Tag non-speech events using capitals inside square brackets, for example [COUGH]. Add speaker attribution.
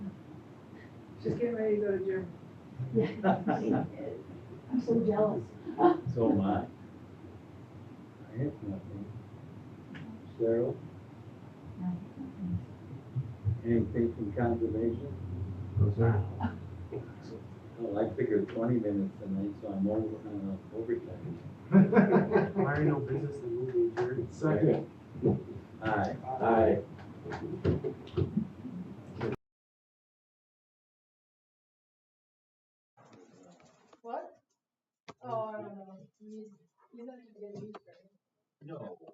Speaker 1: She's getting ready to go to Germany.
Speaker 2: [LAUGHS] I'm so jealous.
Speaker 3: So am I.
Speaker 4: I have nothing. Cheryl? Anything from conservation? Well, I figured twenty minutes tonight, so I'm over, on uh, overtime.
Speaker 5: Why are no business in moving adjourned? Second.
Speaker 4: Aye.
Speaker 3: Aye.
Speaker 6: What? Oh, I don't know. You, you have to get a new shirt.
Speaker 4: No.